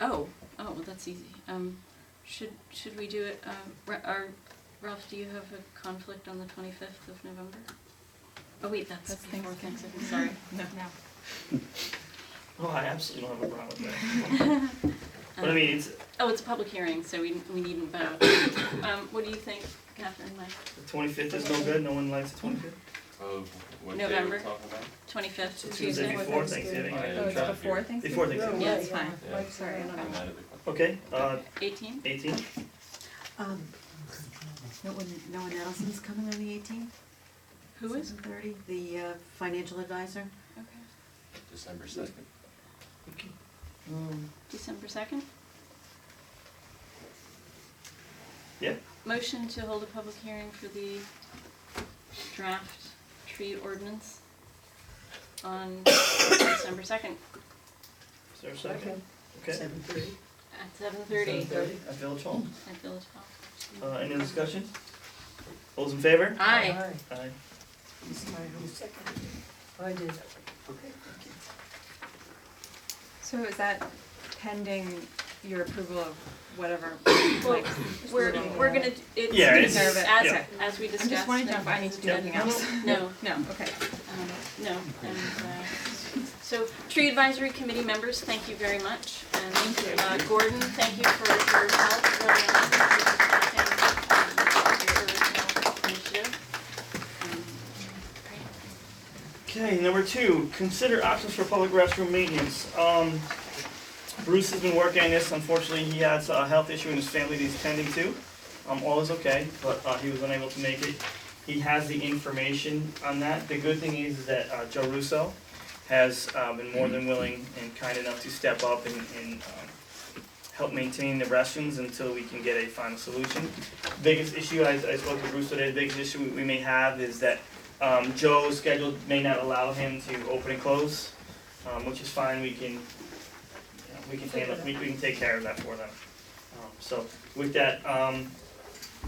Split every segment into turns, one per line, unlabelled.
Oh, oh, well, that's easy. Um, should, should we do it, um, Ra- are, Ralph, do you have a conflict on the twenty-fifth of November? Oh, wait, that's
That's
before
Thanksgiving.
Thanksgiving, sorry.
No.
Well, Oh, I absolutely don't have a problem with that. But I
Um,
mean, it's,
Oh, it's a public hearing, so we, we needn't vote. Um, what do you think, Catherine, Mike?
the twenty-fifth is no good, no one likes the twenty-fifth.
Of what day we're
November.
talking about?
Twenty-fifth,
So Tuesday
Tuesday?
before
Thanksgiving.
Thanksgiving.
Oh, yeah,
Oh, it's
traffic
before
here.
Thanksgiving?
Before Thanksgiving.
Yeah, it's fine.
Yeah.
I'm sorry, I don't
I'm
know.
not a big fan.
Okay, uh,
Eighteen?
eighteen,
Um, no one, no one Adelson's coming on the eighteenth?
Who is?
Seven thirty, the uh, financial advisor.
Okay.
December second.
December second?
yeah,
Motion to hold a public hearing for the draft tree ordinance on December second
is there a second? Okay,
Seven thirty.
at seven thirty
thirty at Village Hall.
at Village Hall.
Uh, any discussion? All Those in favor?
Aye.
Aye.
I did.
So is that pending your approval of whatever?
Well,
like,
we're,
moving
we're
on?
gonna, d- it's,
Yeah,
it's
it's-
as,
yeah.
as we
I'm
discussed.
just wanting to know if I need to do
Yeah.
anything else.
No,
No, okay.
um, no, and, uh, so, tree advisory committee members, thank you very much. And, uh, Gordon, thank you for your help, very much. Your original initiative. Um, Great.
Okay, number two, consider options for public restroom maintenance. Um, Bruce has been working on this, unfortunately, he has a health issue in his family that he's tending to. Um, all is okay, but, uh, he was unable to make it. He has the information on that. The good thing is that, uh, Joe Russo has, uh, been more than willing and kind enough to step up and, and, um, help maintain the restrooms until we can get a final solution. Biggest issue, I, I spoke to Bruce today, the biggest issue we- we may have is that um, Joe's schedule may not allow him to open and close, um, which is fine, we can, you know, we can handle, we, we can take care of that for them. Um, so with that, um,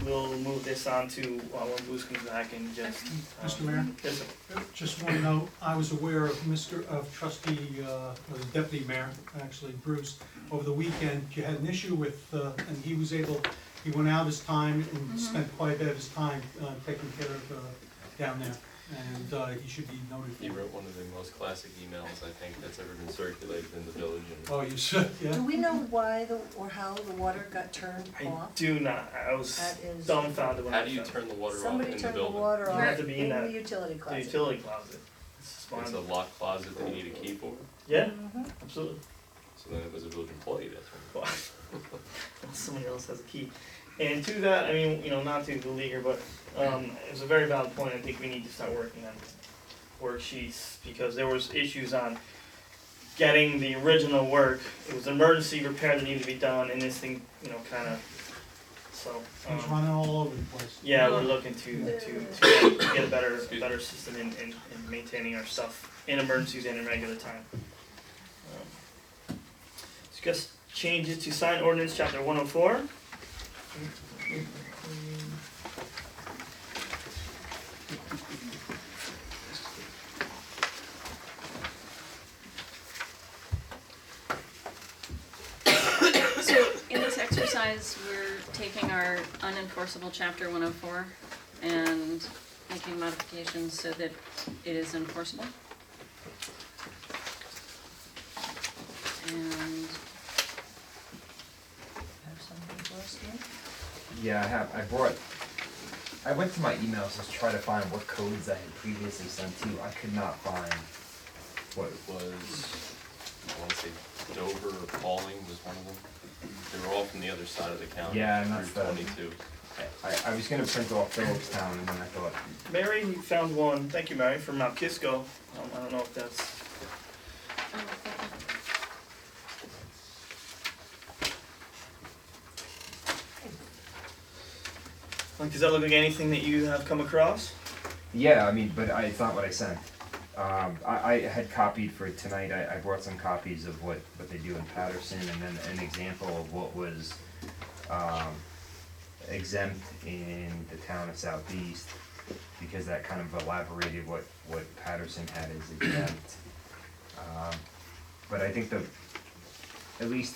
we'll move this on to, uh, when Bruce comes back and just. um,
Mr. Mayor?
Yes, sir.
Just one note, I was aware of Mr., of trustee, uh, or the deputy mayor, actually, Bruce, over the weekend, you had an issue with, uh, and he was able, he went out his time and spent quite a bit of his time uh, taking care of, uh, down there, and uh, he should be noted.
He wrote one of the most classic emails, I think, that's ever been circulated in the village and
Oh, you should, yeah?
Do we know why the, or how the water got turned
I
off?
do not, I was
That is-
dumbfounded when I
how
found
do you turn the water off
Somebody
in the
turned the
building?
water
You
off
have to be in
in the
that-
utility
The
closet.
utility closet. It's
It's a
fine.
locked closet that you need a key for,
Yeah,
Mm-hmm.
absolutely.
so then it was a village employee, that's when.
Well, Somebody else has a key. And to that, I mean, you know, not to beleaguer, but um, it was a very valid point. I think we need to start working on worksheets because there was issues on getting the original work. It was emergency repair that needed to be done, and this thing, you know, kind of. So
He's
um,
running all over the place.
yeah, we're looking to to, to get a better a better system in, in, in maintaining our stuff in emergencies and in regular time. Um, Discuss changes to sign ordinance chapter one oh four.
So in this exercise, we're taking our unenforceable chapter one oh four and making modifications so that it is enforceable. And
Have something for us here?
Yeah, I have. I brought. I went to my emails to try to find what codes I had previously sent to you. I could not find what.
It was, I wanna say Dover or Pauling was one of them. They were all from the other side of the county,
Yeah, and that's
Route
the-
twenty-two.
I, I was gonna print off Phillips Town, and then I thought,
Mary found one, thank you Mary, from Mount Kisco. Um, I don't know if that's,
Oh, okay.
like, does that look like anything that you have come across?
yeah, I mean, but I, it's not what I sent. Um, I, I had copied for tonight. I, I brought some copies of what what they do in Patterson, and then an example of what was um, exempt in the town of Southeast, because that kind of elaborated what what Patterson had as exempt. Um, but I think the, at least